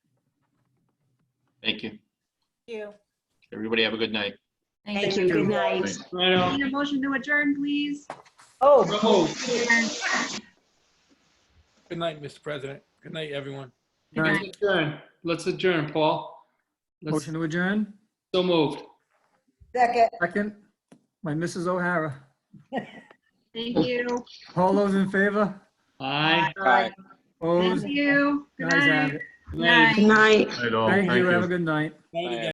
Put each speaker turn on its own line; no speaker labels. Thank you.
You.
Everybody have a good night.
Thank you. Good night.
Right on.
Need a motion to adjourn, please?
Oh,
So moved.
Adjourn.
Good night, Mr. President. Good night, everyone.
Good night.
Let's adjourn. Let's adjourn, Paul. Let's,
Motion to adjourn?
so moved.
second.
Second, by Mrs. O'Hara.
Thank you.
All those in favor?
Aye.
Bye.
Opposed?
Thank you. Good
Guys have
night.
it.
Good night.
Good night.
Night all.
Thank you, have a good night.
Night again.